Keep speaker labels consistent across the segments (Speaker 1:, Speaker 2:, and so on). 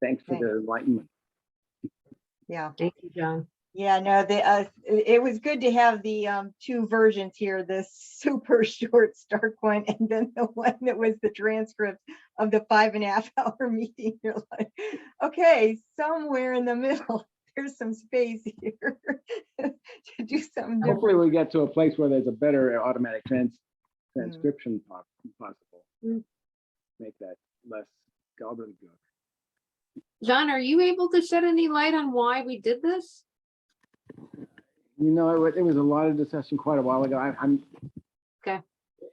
Speaker 1: Thanks for the enlightenment.
Speaker 2: Yeah,
Speaker 3: Thank you, John.
Speaker 2: yeah, no, the, uh, it it was good to have the, um, two versions here, the super short start one and then the one that was the transcript of the five and a half hour meeting. You're like, okay, somewhere in the middle, there's some space here to do something different.
Speaker 1: Hopefully we get to a place where there's a better automatic trans,
Speaker 2: Mm.
Speaker 1: transcription po- possible.
Speaker 3: Mm.
Speaker 1: Make that less gobbledygook.
Speaker 3: John, are you able to shed any light on why we did this?
Speaker 1: You know, it was, it was a lot of discussion quite a while ago. I- I'm.
Speaker 3: Okay.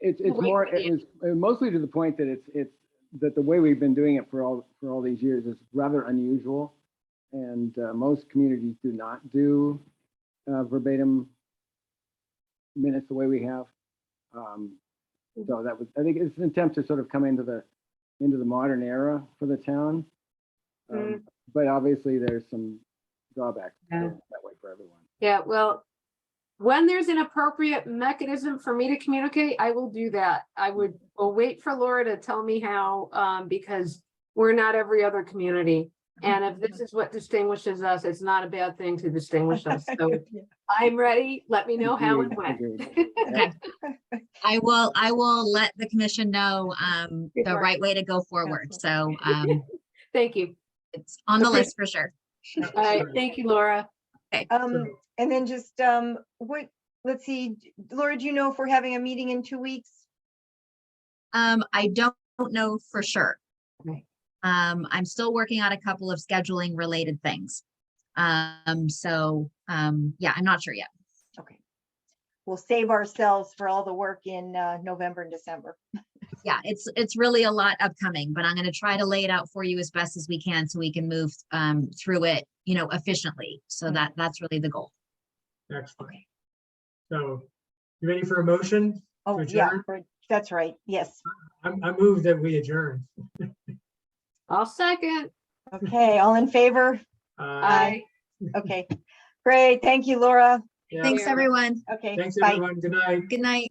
Speaker 1: It's,
Speaker 3: We'll
Speaker 1: it's
Speaker 3: wait
Speaker 1: more,
Speaker 3: for the
Speaker 1: it was uh, mostly to the point that it's, it's, that the way we've been doing it for all, for all these years is rather unusual. And uh, most communities do not do uh, verbatim minutes the way we have. Um, So that was, I think it's an attempt to sort of come into the, into the modern era for the town. Um, But obviously there's some drawbacks to
Speaker 3: Mm. Yeah.
Speaker 1: doing it that way for everyone.
Speaker 3: Yeah, well, when there's an appropriate mechanism for me to communicate, I will do that. I would, will wait for Laura to tell me how, um, because we're not every other community.
Speaker 4: Oh,
Speaker 3: And if this is what distinguishes us, it's not a bad thing to distinguish us. So I'm ready. Let me know how and when.
Speaker 1: Agreed.
Speaker 5: I will, I will let the commission know um
Speaker 3: Good
Speaker 5: the
Speaker 3: work.
Speaker 5: right way to go forward. So um
Speaker 3: Thank you.
Speaker 5: it's on the
Speaker 3: Okay.
Speaker 5: list for sure.
Speaker 3: All right, thank you, Laura.
Speaker 2: Um, and then just, um, what, let's see, Laura, do you know if we're having a meeting in two weeks?
Speaker 5: Um, I don't know for sure.
Speaker 3: Okay.
Speaker 5: Um, I'm still working on a couple of scheduling related things. Um, so um, yeah, I'm not sure yet.
Speaker 2: Okay. We'll save ourselves for all the work in, uh, November and December.
Speaker 5: Yeah, it's it's really a lot upcoming, but I'm gonna try to lay it out for you as best as we can so we can move um through it, you know, efficiently. So
Speaker 2: Mhm.
Speaker 5: that that's really the goal.
Speaker 4: Excellent. So you ready for a motion?
Speaker 2: Oh,
Speaker 4: To
Speaker 2: yeah,
Speaker 4: adjourn?
Speaker 2: for- that's right. Yes.
Speaker 4: I, I move that we adjourn.
Speaker 3: I'll second.
Speaker 2: Okay, all in favor?
Speaker 4: Uh,
Speaker 3: Aye.
Speaker 2: Okay, great. Thank you, Laura.
Speaker 4: yeah,
Speaker 5: Thanks,
Speaker 3: Yeah.
Speaker 5: everyone.
Speaker 2: Okay,
Speaker 4: Thanks,
Speaker 2: bye.
Speaker 4: everyone. Good night.
Speaker 5: Good night.